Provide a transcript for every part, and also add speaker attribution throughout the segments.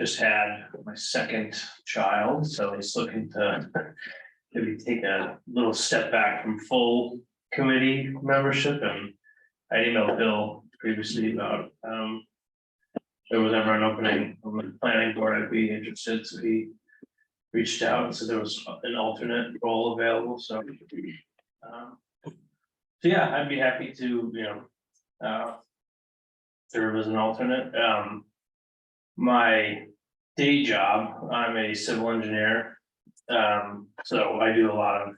Speaker 1: just had my second child, so he's looking to maybe take a little step back from full committee membership and I emailed Bill previously about, um, if there was ever an opening on the planning board, I'd be interested, so he reached out and said there was an alternate role available, so. um, So yeah, I'd be happy to, you know, uh, serve as an alternate, um. My day job, I'm a civil engineer, um, so I do a lot of.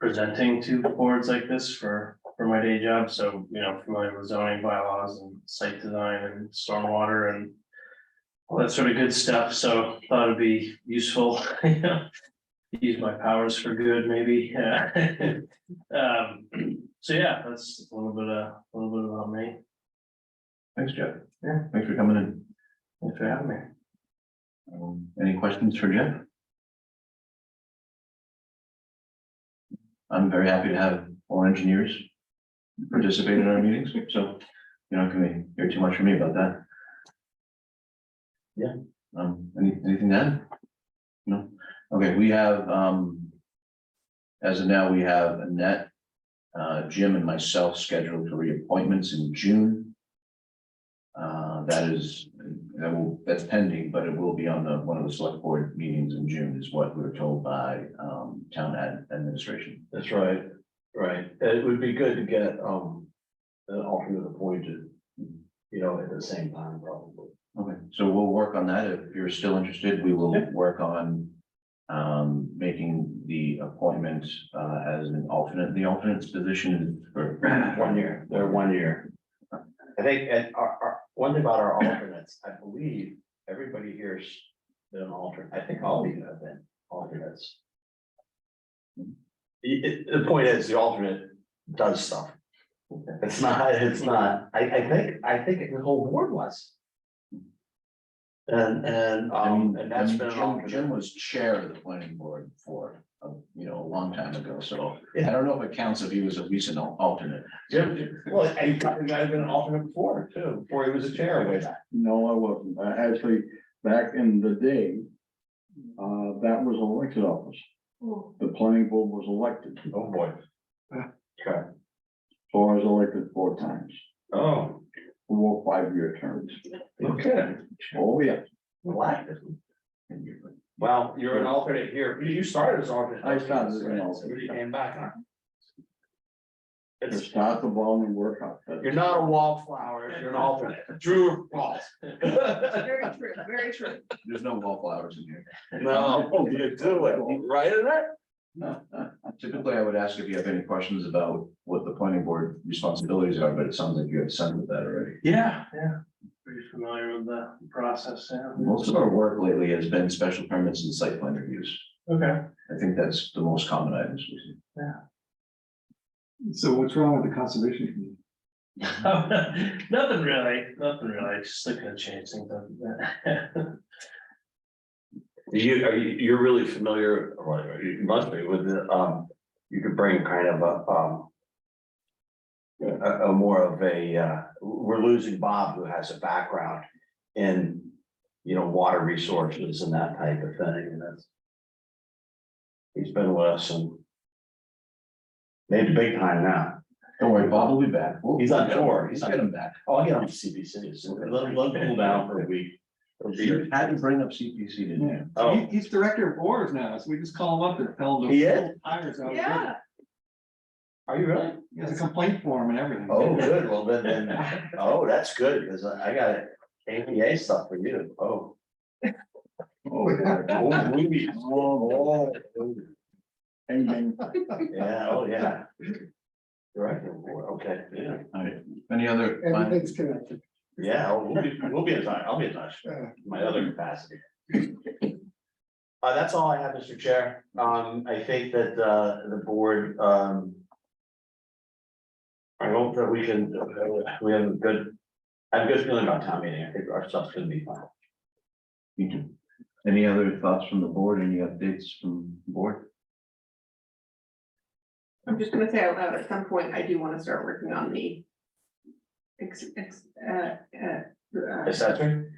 Speaker 1: Presenting to boards like this for, for my day job, so, you know, familiar with zoning bylaws and site design and stormwater and. All that sort of good stuff, so thought it'd be useful, you know, use my powers for good, maybe, yeah. Um, so yeah, that's a little bit, uh, a little bit about me,
Speaker 2: Thanks, Jeff.
Speaker 1: Yeah.
Speaker 2: Thanks for coming in.
Speaker 1: thanks for having me.
Speaker 2: Um, Any questions for Jeff? I'm very happy to have all engineers participate in our meetings, so you're not gonna hear too much from me about that.
Speaker 1: Yeah.
Speaker 2: Um, any, anything to add? No? Okay, we have, um, as of now, we have Annette, uh, Jim and myself scheduled for reappointments in June. Uh, that is, that will, that's pending, but it will be on the, one of the select board meetings in June is what we were told by, um, town ad- administration.
Speaker 3: That's right, right. And It would be good to get, um, an alternate appointed, you know, at the same time, probably.
Speaker 2: Okay, so we'll work on that. If you're still interested, we will work on, um, making the appointment, uh, as an alternate. The alternate's position is for.
Speaker 3: One year, they're one year. I think, and our, our, one thing about our alternates, I believe everybody here's been an alternate. I think all of you have been alternates. The, it- the point is, the alternate does stuff. It's not, it's not, I, I think, I think the whole board was. And, and,
Speaker 2: I
Speaker 3: um,
Speaker 2: mean,
Speaker 3: and that's been an
Speaker 2: Jim,
Speaker 3: alternate.
Speaker 2: Jim was chair of the planning board for, uh, you know, a long time ago, so I don't know if it counts if he was a recent al- alternate.
Speaker 3: Jim, well, I, you guys have been an alternate before too, before he was a chair way back.
Speaker 4: No, I wasn't. I Actually, back in the day, uh, that was elected office.
Speaker 5: Hmm.
Speaker 4: The planning board was elected,
Speaker 3: Oh, boy. Okay,
Speaker 4: so I was elected four times,
Speaker 3: oh,
Speaker 4: four five-year terms.
Speaker 3: okay,
Speaker 4: Oh, yeah.
Speaker 3: what? Well, you're an alternate here, you, you started as alternate.
Speaker 4: I started as an
Speaker 3: Right, so
Speaker 4: alternate.
Speaker 3: You came back, huh?
Speaker 4: To
Speaker 3: It's,
Speaker 4: start the ball and work out. That's-
Speaker 3: you're not a wallflower, you're an alternate, Drew Ross.
Speaker 6: Very true, very true.
Speaker 2: There's no wallflowers in here.
Speaker 3: No, you do it, right in it?
Speaker 2: Typically, I would ask if you have any questions about what the planning board responsibilities are, but it sounds like you have some of that already.
Speaker 1: Yeah, yeah, pretty familiar with the process, yeah.
Speaker 2: Most of our work lately has been special permits and site plan reviews.
Speaker 1: Okay.
Speaker 2: I think that's the most common items we see.
Speaker 7: So what's wrong with the conservation committee?
Speaker 1: Nothing really, nothing really, just looking to change things up. a bit.
Speaker 3: You, are you, you're really familiar, or you must be with, the, um, you could bring kind of a, um. A, a more of a, uh, we're losing Bob who has a background in, you know, water resources and that type of thing, and that's. He's been with us and. Made the big time now.
Speaker 2: Don't worry, Bob will be back. We'll-
Speaker 3: He's on tour. He's
Speaker 2: We'll
Speaker 3: on-
Speaker 2: Get him back.
Speaker 3: Oh, I get on CBC, so let him, let him cool down for a week.
Speaker 2: You had to bring up CPC, didn't you?
Speaker 3: Oh.
Speaker 7: He- He's director of boards now, so we just call him up and tell him. to
Speaker 3: He is?
Speaker 7: pull Tires out.
Speaker 6: Yeah,
Speaker 3: Are you really?
Speaker 7: He has a complaint form and everything.
Speaker 3: Oh, good, well, then, then, oh, that's good, because I I got APA stuff for you, oh.
Speaker 4: Oh, yeah.
Speaker 3: Oh, we- whoa, whoa.
Speaker 4: Bang, bang.
Speaker 3: Yeah, oh, yeah. Director, okay, yeah,
Speaker 2: All right. Any other?
Speaker 5: Everything's connected.
Speaker 3: yeah, oh, we'll be, we'll be in touch, I'll be in touch, my other capacity. Uh, that's all I have, Mr. Chair, um, I think that, uh, the board, um. I hope that we can, uh, we have a good, I have a good feeling about town meeting, I think our stuff's gonna be fine.
Speaker 2: You do. Any other thoughts from the board? Any updates from the board?
Speaker 6: I'm just gonna say out loud, at some point, I do wanna start working on the. Ex, ex, uh, uh, uh,
Speaker 3: Accessory?